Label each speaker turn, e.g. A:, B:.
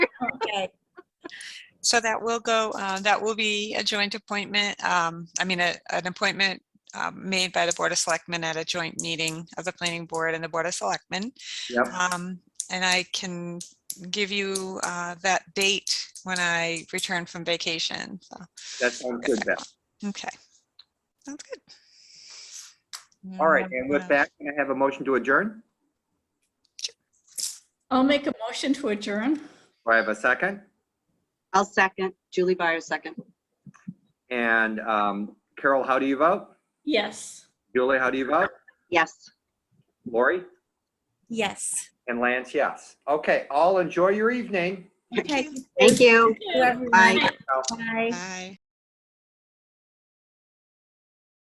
A: So that will go, uh, that will be a joint appointment, um, I mean, a- an appointment um, made by the Board of Selectmen at a joint meeting of the Planning Board and the Board of Selectmen.
B: Yep.
A: Um, And I can give you uh, that date when I return from vacation. So,
B: That sounds good, Beth.
A: Okay. Sounds Uh, good.
B: All right, and with that, can I have a motion to adjourn?
C: I'll make a motion to adjourn.
B: Do I have a second?
D: I'll second. Julie Byers, second.
B: And um, Carol, how do you vote?
C: Yes.
B: Julie, how do you vote?
D: Yes.
B: Lori?
E: Yes.
B: And Lance, yes. Okay, all enjoy your evening.
E: Okay.
D: Thank you.
E: Whoever-
D: Bye.
E: Bye.
A: Bye.